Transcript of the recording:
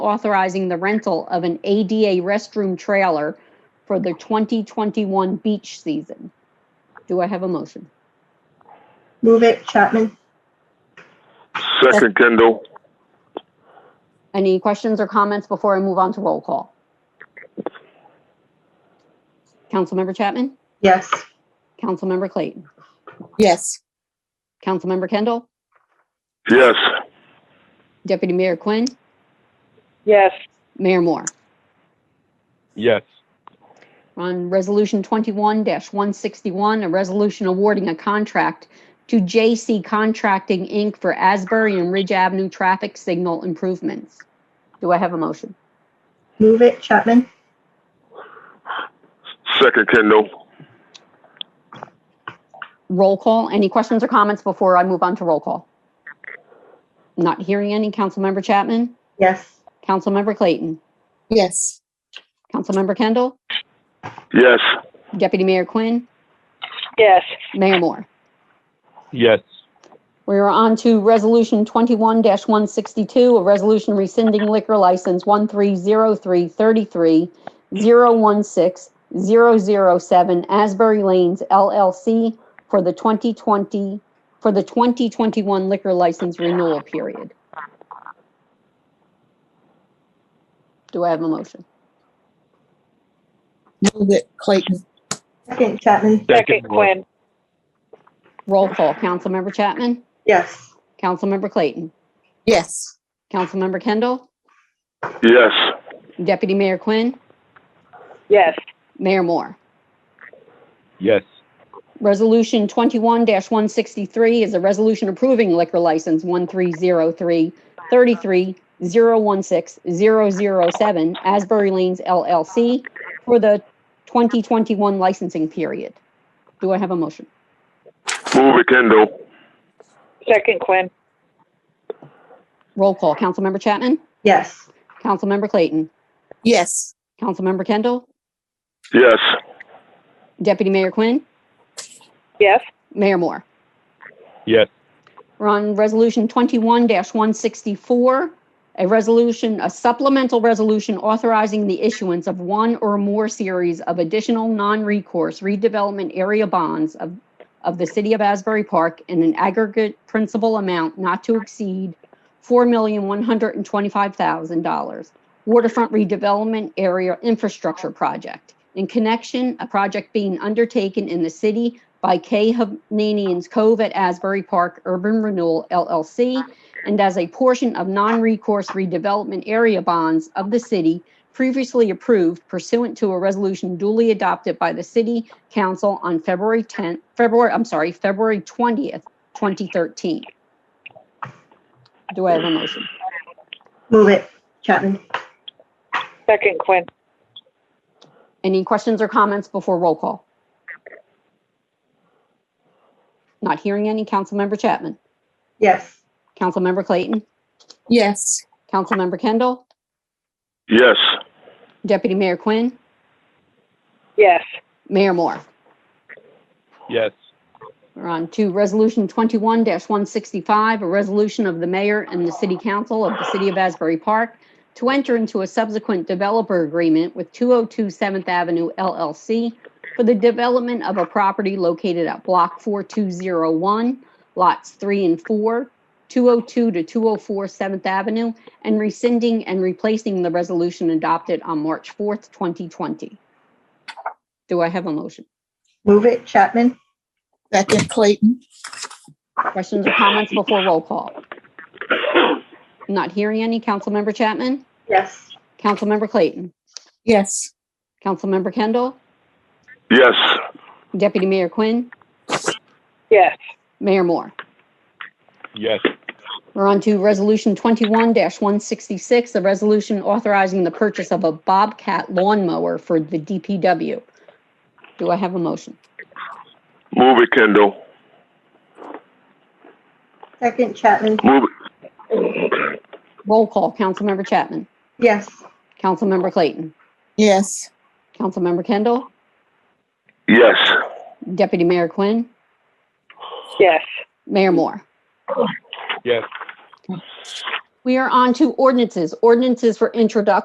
authorizing the rental of an ADA restroom trailer for the 2021 beach season. Do I have a motion? Move it, Chapman. Second Kindle. Any questions or comments before I move on to roll call? Councilmember Chapman? Yes. Councilmember Clayton? yes, Councilmember Kendall? Yes. Deputy Mayor Quinn? yes, Mayor Moore? Yes. On Resolution 21-161, a resolution awarding a contract to JC Contracting, Inc. for Asbury and Ridge Avenue traffic signal improvements. Do I have a motion? Move it, Chapman. Second Kindle. Roll call. Any questions or comments before I move on to roll call? Not hearing any. Councilmember Chapman? Yes. Councilmember Clayton? yes, Councilmember Kendall? Yes. Deputy Mayor Quinn? yes, Mayor Moore? Yes. We are on to Resolution 21-162, a resolution rescinding liquor license 130333016007 Asbury Lanes LLC for the 2020, for the 2021 liquor license renewal period. Do I have a motion? move it Clayton, Second, Chapman. second Quinn, Roll call. Councilmember Chapman? Yes. Councilmember Clayton? yes, Councilmember Kendall? Yes. Deputy Mayor Quinn? yes, Mayor Moore? Yes. Resolution 21-163 is a resolution approving liquor license 1303-33016007 Asbury Lanes LLC for the 2021 licensing period. Do I have a motion? Move it Kindle. second Quinn, Roll call. Councilmember Chapman? Yes. Councilmember Clayton? yes, Councilmember Kendall? Yes. Deputy Mayor Quinn? yes, Mayor Moore? Yes. We're on Resolution 21-164, a resolution, a supplemental resolution authorizing the issuance of one or more series of additional non-recourse redevelopment area bonds of, of the City of Asbury Park in an aggregate principal amount not to exceed $4,125,000 waterfront redevelopment area infrastructure project. In connection, a project being undertaken in the city by K. Hovnanians Cove at Asbury Park Urban Renewal LLC, and as a portion of non-recourse redevelopment area bonds of the city previously approved pursuant to a resolution duly adopted by the city council on February 10th, February, I'm sorry, February 20th, 2013. Do I have a motion? Move it, Chapman. second Quinn, Any questions or comments before roll call? Not hearing any. Councilmember Chapman? Yes. Councilmember Clayton? yes, Councilmember Kendall? Yes. Deputy Mayor Quinn? yes, Mayor Moore? Yes. We're on to Resolution 21-165, a resolution of the mayor and the city council of the city of Asbury Park to enter into a subsequent developer agreement with 202 7th Avenue LLC for the development of a property located at Block 4201, Lots 3 and 4, 202 to 204 7th Avenue, and rescinding and replacing the resolution adopted on March 4th, 2020. Do I have a motion? Move it, Chapman. second Clayton, Questions or comments before roll call? Not hearing any. Councilmember Chapman? Yes. Councilmember Clayton? yes, Councilmember Kendall? Yes. Deputy Mayor Quinn? yes, Mayor Moore? Yes. We're on to Resolution 21-166, a resolution authorizing the purchase of a Bobcat lawnmower for the DPW. Do I have a motion? Move it Kindle. Second, Chapman. Move it. Roll call. Councilmember Chapman? Yes. Councilmember Clayton? yes, Councilmember Kendall? Yes. Deputy Mayor Quinn? yes, Mayor Moore? Yes. We are on to ordinances, ordinances for introduction.